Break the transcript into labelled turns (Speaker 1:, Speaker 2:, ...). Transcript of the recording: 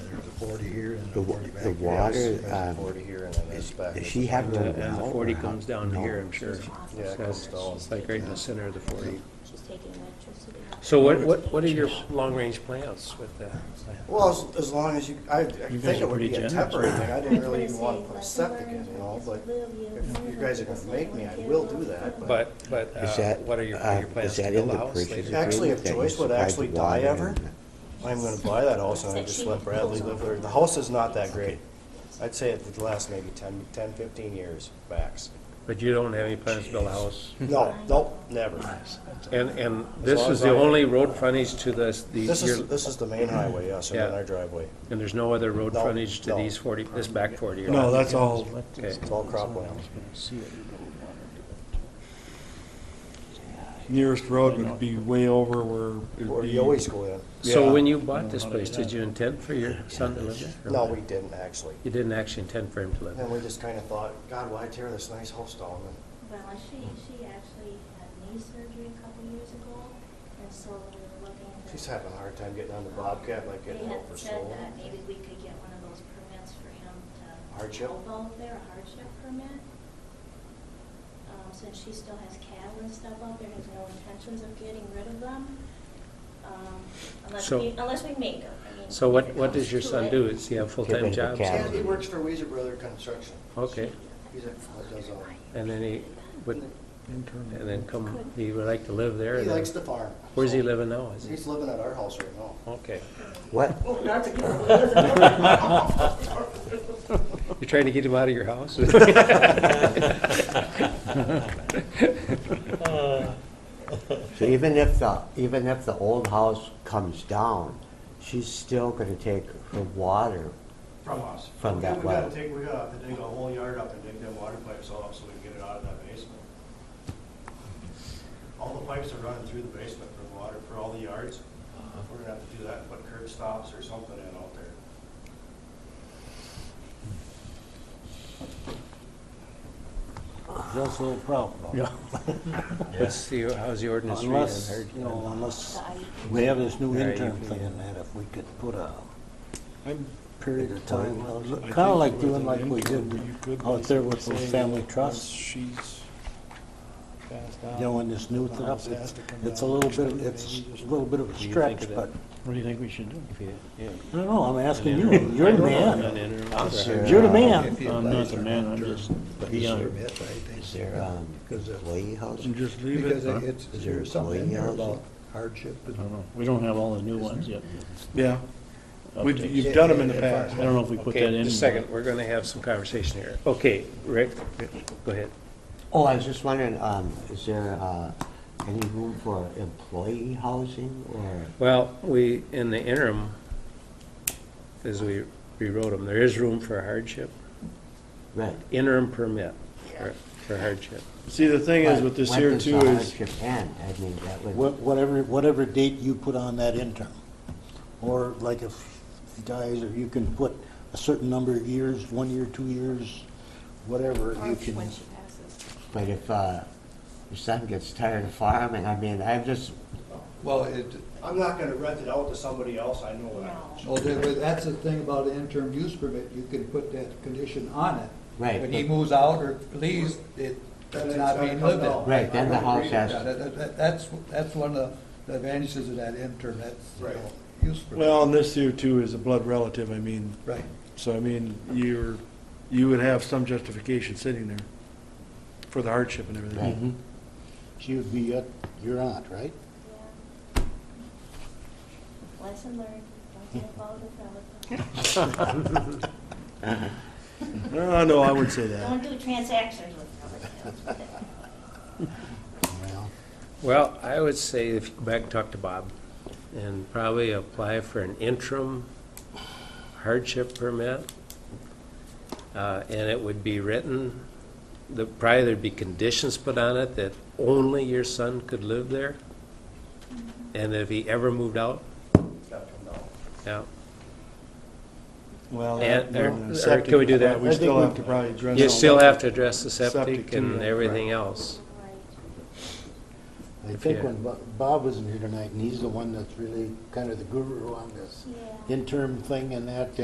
Speaker 1: forty here and
Speaker 2: The
Speaker 1: a
Speaker 2: wa-
Speaker 1: forty back
Speaker 2: the
Speaker 1: here.
Speaker 2: water,
Speaker 1: There's
Speaker 2: um,
Speaker 1: a forty here and then
Speaker 2: is-
Speaker 1: this back.
Speaker 2: does
Speaker 1: It's
Speaker 2: she
Speaker 1: a
Speaker 2: have
Speaker 1: forty.
Speaker 2: to-
Speaker 3: And the
Speaker 2: Well,
Speaker 3: forty
Speaker 2: uh,
Speaker 3: comes down to
Speaker 2: no.
Speaker 3: here, I'm sure.
Speaker 1: Yeah, it
Speaker 3: So
Speaker 1: comes down.
Speaker 3: It's like right in the center of the forty.
Speaker 4: She's taking electricity.
Speaker 5: So what, what, what are your long-range plans with the?
Speaker 1: Well, as, as long as you, I, I think
Speaker 3: guys are
Speaker 1: it would
Speaker 3: pretty
Speaker 1: be a
Speaker 3: generous.
Speaker 1: temporary thing, I didn't really even wanna put a
Speaker 4: Let's
Speaker 1: septic in,
Speaker 4: learn,
Speaker 1: you know,
Speaker 4: let's
Speaker 1: but
Speaker 4: live, you
Speaker 1: if you
Speaker 4: learn,
Speaker 1: guys are
Speaker 4: let's
Speaker 1: gonna
Speaker 4: learn
Speaker 1: make me, I
Speaker 4: together.
Speaker 1: will do that, but.
Speaker 5: But, but
Speaker 2: Is
Speaker 5: uh,
Speaker 2: that,
Speaker 5: what are your, what
Speaker 2: uh,
Speaker 5: are your plans
Speaker 2: is
Speaker 5: to
Speaker 2: that
Speaker 5: build
Speaker 2: in
Speaker 5: a
Speaker 2: the
Speaker 5: house
Speaker 2: purchase
Speaker 5: later?
Speaker 2: agreement
Speaker 1: Actually, if
Speaker 2: that you
Speaker 1: Joyce would
Speaker 2: supplied
Speaker 1: actually
Speaker 2: the water
Speaker 1: die ever,
Speaker 2: and-
Speaker 1: I'm gonna buy that house and I just let Bradley live there, the house is not that great. I'd say it would last maybe 10, 10, 15 years max.
Speaker 5: But you don't have any plans to build a house?
Speaker 1: No, nope, never.
Speaker 5: And, and this
Speaker 1: long
Speaker 5: is
Speaker 1: as
Speaker 5: the
Speaker 1: I-
Speaker 5: only road frontage to this, the,
Speaker 1: This is,
Speaker 5: your-
Speaker 1: this is the main highway, yes, and then
Speaker 5: Yeah.
Speaker 1: our driveway,
Speaker 5: and there's no other road
Speaker 1: No,
Speaker 5: frontage to
Speaker 1: no.
Speaker 5: these forty, this back forty? or-
Speaker 6: No, that's all,
Speaker 5: Okay.
Speaker 1: it's all cropland.
Speaker 6: nearest road would be way over where it'd
Speaker 1: Where
Speaker 6: be-
Speaker 1: you always go in.
Speaker 5: So
Speaker 6: Yeah.
Speaker 5: when you bought this place, did you intend for your son to live there?
Speaker 1: No, we didn't actually.
Speaker 5: You didn't actually intend for him to live there?
Speaker 1: And we just kinda thought, God, why tear this nice house down?
Speaker 4: Well, she, she actually had knee surgery a couple years ago, and so we were looking at.
Speaker 1: She's having a hard time getting on the Bobcat like
Speaker 4: We
Speaker 1: getting
Speaker 4: had
Speaker 1: over
Speaker 4: said
Speaker 1: so.
Speaker 4: that maybe we could get one of those permits for him to.
Speaker 1: Hardship?
Speaker 4: help out there, a hardship permit. Um, since she still has cattle and stuff out there, has no intentions of getting rid of them. Um, unless
Speaker 5: So-
Speaker 4: we, unless we make her, I mean.
Speaker 5: So
Speaker 4: if
Speaker 5: what,
Speaker 4: it
Speaker 5: what
Speaker 4: comes
Speaker 5: does your
Speaker 4: to
Speaker 5: son
Speaker 4: it.
Speaker 5: do? Does he have
Speaker 2: rid
Speaker 5: full-time
Speaker 2: of the
Speaker 5: jobs?
Speaker 2: cat.
Speaker 1: Yeah, he works for Weezer Brother Construction.
Speaker 5: Okay,
Speaker 1: He's a, does all.
Speaker 5: and then he would, and then come, he would like to live there?
Speaker 1: He
Speaker 5: and then-
Speaker 1: likes the farm.
Speaker 5: Where's he
Speaker 1: so-
Speaker 5: living now? Is he?
Speaker 1: He's living at our house right now.
Speaker 5: Okay.
Speaker 2: What?
Speaker 5: You're trying to get him out of your house?
Speaker 7: Uh,
Speaker 2: So even if the, even if the old house comes down, she's still gonna take her water.
Speaker 8: From us.
Speaker 2: From
Speaker 8: We-
Speaker 2: that
Speaker 8: We gotta
Speaker 2: well.
Speaker 8: take, we gotta have to dig a whole yard up and dig them water pipes all up so we can get it out of that basement. All the pipes are running through the basement for the water, for all the yards. We're gonna have to do that, and put curb stops or something in out there.
Speaker 7: That's a little problem.
Speaker 5: What's the, how's the ordinance reading?
Speaker 7: Unless,
Speaker 5: Heard-
Speaker 7: you know, unless
Speaker 4: So I-
Speaker 7: we have this new
Speaker 5: Yeah, you
Speaker 7: intern
Speaker 5: can-
Speaker 7: thing in that, if we could put a,
Speaker 6: I'm
Speaker 7: at
Speaker 6: period.
Speaker 7: a time,
Speaker 6: I
Speaker 7: kind
Speaker 6: think
Speaker 7: of like
Speaker 6: with
Speaker 7: doing
Speaker 6: an
Speaker 7: like we
Speaker 6: intern,
Speaker 7: did
Speaker 6: you could
Speaker 7: out there with
Speaker 6: basically
Speaker 7: those
Speaker 6: say
Speaker 7: family
Speaker 6: that once
Speaker 7: trusts.
Speaker 6: She's passed out.
Speaker 7: You know, in this new
Speaker 6: the
Speaker 7: thing,
Speaker 6: house has
Speaker 7: it's,
Speaker 6: to come
Speaker 7: it's a
Speaker 6: down.
Speaker 7: little bit, it's a little bit of a
Speaker 5: do you think
Speaker 7: stretch,
Speaker 5: of
Speaker 7: but,
Speaker 6: What do you think we should do?
Speaker 7: I don't know, I'm asking you, you're the man.
Speaker 2: there,
Speaker 7: You're the
Speaker 2: uh,
Speaker 7: man.
Speaker 6: I'm not the man, I'm just beyond.
Speaker 2: Is there, um, employee housing?
Speaker 6: Just leave it. huh?
Speaker 2: Is there employee housing?
Speaker 6: I
Speaker 7: Uh-huh.
Speaker 6: don't know. We don't have all the new ones yet. Yeah. We've, you've done them in the past. I don't know if we put that in.
Speaker 5: Okay, just a second, we're gonna have some conversation here. Okay, Rick, go ahead.
Speaker 2: Oh, I was just wondering, um, is there, uh, any room for employee housing or?
Speaker 5: Well, we, in the interim, as we rewrote them, there is room for hardship,
Speaker 2: Right.
Speaker 5: interim permit for- for hardship.
Speaker 6: See, the thing is with this
Speaker 2: When
Speaker 6: here
Speaker 2: does the
Speaker 6: too is,
Speaker 2: hardship end? I mean, that would.
Speaker 7: Wha- Whatever, whatever date you put on that intern, or like if he dies, or you can put a certain number of years, one year, two years, whatever,
Speaker 4: Or
Speaker 7: you
Speaker 4: if-
Speaker 7: can.
Speaker 4: when she passes.
Speaker 2: But if, uh, your son gets tired of farming, I mean, I'm just,
Speaker 8: Well, it. I'm not gonna rent it out to somebody else, I know that.
Speaker 9: Well, oh, there- but that's the thing about an interim use permit, you can put that condition on it.
Speaker 2: Right,
Speaker 9: When he
Speaker 2: but-
Speaker 9: moves out or leaves, it, that's
Speaker 8: it's
Speaker 9: not
Speaker 8: gotta
Speaker 9: being
Speaker 8: come
Speaker 9: lived
Speaker 8: down.
Speaker 9: in.
Speaker 2: right, then the house has
Speaker 9: Yeah, that- that- that- That's, that's one of the advantages of that interim, that's, you
Speaker 8: Right.
Speaker 9: know, use permit.
Speaker 6: well, and this here too is a blood relative, I mean.
Speaker 9: Right.
Speaker 6: So I mean, you're, you would have some justification sitting there for the hardship and
Speaker 2: Right.
Speaker 6: everything.
Speaker 7: Mhm. She would be your, your aunt, right?
Speaker 4: Yeah. Lesson learned, don't get involved with relatives.
Speaker 6: Uh, no, I wouldn't say
Speaker 4: Don't
Speaker 6: that.
Speaker 4: do transactions with relatives.
Speaker 7: Well,
Speaker 5: Well, I would say if you go back and talk to Bob and probably apply for an interim hardship permit. Uh, And it would be written, the, probably there'd be conditions put on it that only your son could live there. And if he ever moved out,
Speaker 8: Gotta come down.
Speaker 5: yeah.
Speaker 6: Well,
Speaker 5: And-
Speaker 6: no,
Speaker 5: or-
Speaker 6: no,
Speaker 5: or
Speaker 6: septic,
Speaker 5: can we do that?
Speaker 6: yeah, We
Speaker 7: I
Speaker 6: still
Speaker 7: think
Speaker 6: have to probably address.
Speaker 5: You
Speaker 6: all
Speaker 5: still
Speaker 6: that.
Speaker 5: have to address the septic
Speaker 6: Septic and-
Speaker 5: and everything
Speaker 6: right.
Speaker 5: else.
Speaker 7: I think
Speaker 5: Yeah.
Speaker 7: when Bo- Bob was in here tonight, and he's the one that's really kind of the guru on this
Speaker 4: Yeah.
Speaker 7: interim thing and that,